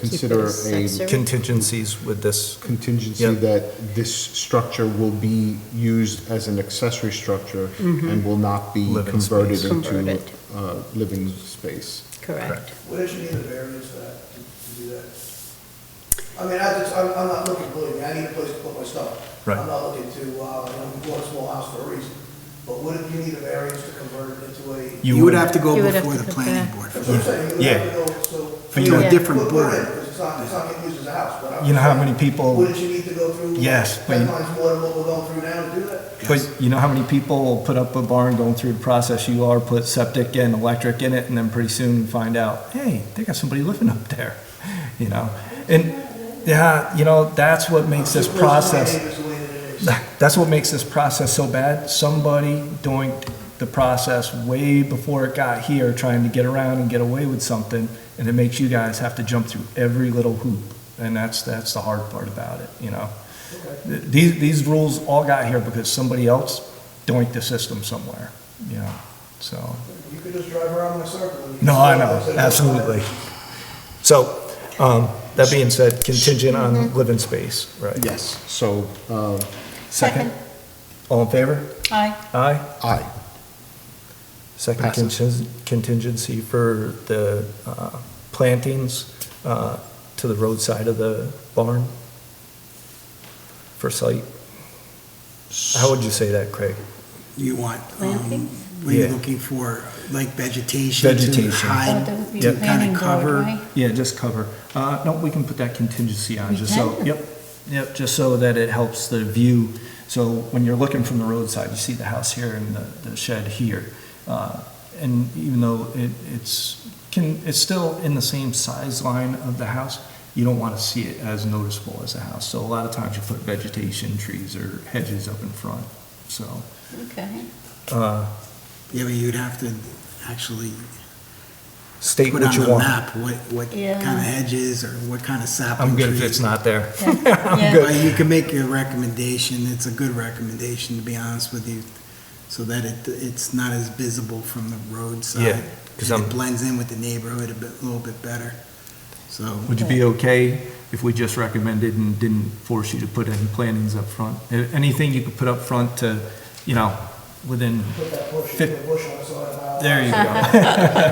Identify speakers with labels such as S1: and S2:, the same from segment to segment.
S1: consider
S2: Keep it
S1: a
S2: accessory.
S3: contingencies with this.
S1: contingency
S3: Yeah.
S1: that this structure will be used as an accessory structure and will not be
S3: Living
S1: converted
S3: space.
S1: into
S2: Converted.
S1: uh, living space.
S2: Correct.
S4: What did you need a variance for that, to to do that? I mean, I just, I'm, I'm not looking, believe me, I need a place to put my stuff.
S3: Right.
S4: I'm not looking to, uh, you know, we bought a small house for a reason, but what if you need a variance to convert it into a?
S5: You would have to go
S2: You would have
S5: before
S2: to
S5: the
S2: go
S5: planning
S2: back.
S5: board.
S4: That's what I'm saying, you would
S3: Yeah.
S4: have to go, so.
S3: For you-
S5: To a different
S4: Put- put
S5: board.
S4: it in, 'cause it's not, it's not getting used as a house, but I'm.
S3: You know how many people-
S4: Wouldn't you need to go through?
S3: Yes, but-
S4: Ten times more than what we're going through now to do that?
S3: But you know how many people put up a barn going through the process you are, put septic and electric in it, and then pretty soon find out, hey, they got somebody living up there, you know? And, yeah, you know, that's what makes this
S4: Just worse than my
S3: process.
S4: neighbors the way that it is.
S3: That's what makes this process so bad. Somebody doing the process way before it got here, trying to get around and get away with something, and it makes you guys have to jump through every little hoop. And that's, that's the hard part about it, you know? Th- These, these rules all got here because somebody else doinked the system somewhere, you know, so.
S4: You could just drive around in a circle. and you
S3: No,
S4: could
S3: I
S4: see
S3: know,
S4: it, so-
S3: absolutely. So, um, that being said, contingent on living space, right?
S5: Yes.
S1: So, uh,
S3: Second? All in favor?
S2: Aye.
S3: Aye?
S1: aye.
S3: Second
S1: Passes.
S3: contin- contingency for the uh, plantings uh, to the roadside of the barn for site. How would you say that, Craig?
S5: You want, um,
S2: Plantings?
S5: what are you
S3: Yeah.
S5: looking for, like vegetation to
S3: Vegetation.
S5: hide,
S2: That would be
S5: to
S2: the
S5: kind
S2: planning
S5: of
S2: board,
S5: cover?
S2: right?
S3: Yeah, just cover. Uh, No, we can put that contingency on,
S2: We
S3: just so,
S2: can?
S3: yep, yep, just so that it helps the view. So when you're looking from the roadside, you see the house here and the the shed here. Uh, And even though it, it's, can, it's still in the same size line of the house, you don't want to see it as noticeable as the house. So a lot of times you put vegetation, trees or hedges up in front, so.
S2: Okay.
S3: uh,
S5: Yeah, but you'd have to actually
S3: State
S5: put
S3: what
S5: on
S3: you
S5: the
S3: want.
S5: map what, what kind
S2: Yeah.
S5: of hedges or what kind of sapling
S3: I'm
S5: trees.
S3: good if it's not there.
S2: Yeah. Yeah.
S5: Well, You can make your recommendation, it's a good recommendation, to be honest with you, so that it, it's not as visible from the roadside.
S3: Yeah, 'cause
S5: And
S3: I'm-
S5: It blends in with the neighborhood a bit, little bit better, so.
S3: Would you be okay if we just recommended and didn't force you to put any plantings up front? A- Anything you could put up front to, you know, within,
S4: Put that bush,
S3: Fif-
S4: put a bush on the side of the house.
S3: there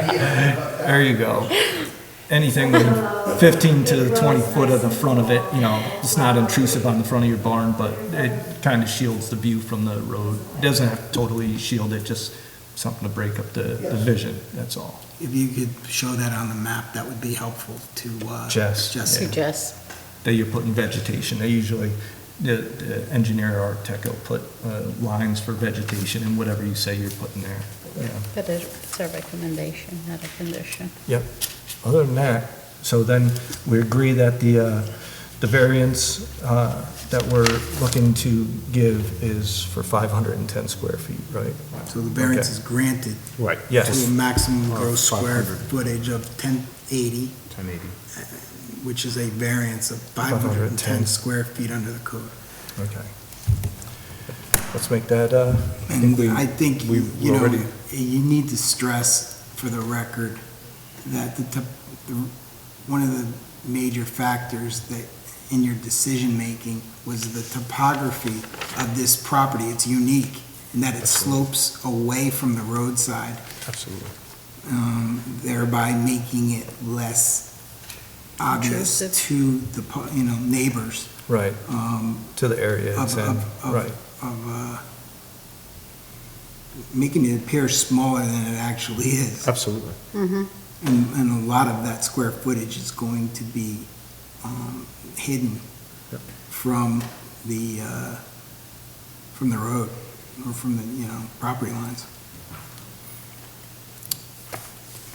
S3: you go, there you go. Anything within fifteen to twenty foot of the front of it, you know, it's not intrusive on the front of your barn, but it kind of shields the view from the road. Doesn't have to totally shield it, just something to break up the, the vision, that's all.
S5: If you could show that on the map, that would be helpful to, uh.
S3: Jess,
S5: Jessica.
S2: Suggest.
S3: that you're putting vegetation. They usually, the, the engineer or architect will put uh, lines for vegetation and whatever you say you're putting there. Yeah.
S2: But it- it's a recommendation, not a condition.
S3: Yep. Other than that, so then we agree that the, uh, the variance uh, that we're looking to give is for 510 square feet, right?
S5: So the variance
S3: Okay.
S5: is granted
S3: Right.
S5: to a
S3: Yes.
S5: maximum
S1: Or
S5: gross square
S1: 500.
S5: footage of ten eighty,
S1: 1080.
S5: which is a variance of five hundred and
S3: 510.
S5: ten square feet under the code.
S3: Okay. Let's make that, uh, I think
S5: And
S3: we-
S5: I think, you
S1: we've
S5: you know,
S1: already-
S5: you need to stress for the record that the, tip- the- one of the major factors that in your decision-making was the topography of this property. It's unique in that it slopes away from the roadside,
S3: absolutely.
S5: um, thereby making it less obvious
S2: Intrusive.
S5: to the, pu- you know, neighbors.
S3: Right,
S5: Um,
S3: to the area it's
S5: of,
S3: in,
S5: of, of,
S3: right.
S5: of uh, making it appear smaller than it actually is.
S3: Absolutely.
S2: Mm-hmm.
S5: And, and a lot of that square footage is going to be um, hidden
S3: Yep.
S5: from the, uh, from the road or from the, you know, property lines.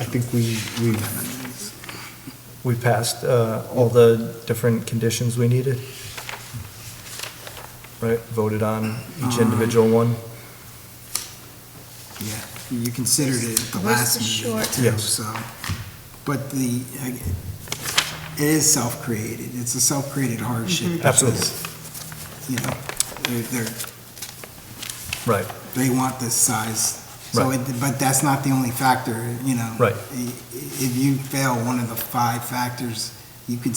S1: I think we, we,
S3: We passed uh, all the different conditions we needed? Right, voted on each individual one?
S5: Yeah, you considered it at the
S2: Where's
S5: last
S2: the
S5: meeting
S2: short?
S5: too,
S3: Yes.
S5: so. But the, I- it is self-created. It's a self-created
S2: Mm-hmm.
S5: hardship.
S3: Absolutely.
S5: because, You know, they're, they're,
S3: Right,
S5: they want this size. So,
S3: Right.
S5: it- but that's not the only factor, you know.
S3: Right.
S5: I- If you fail one of the five factors you could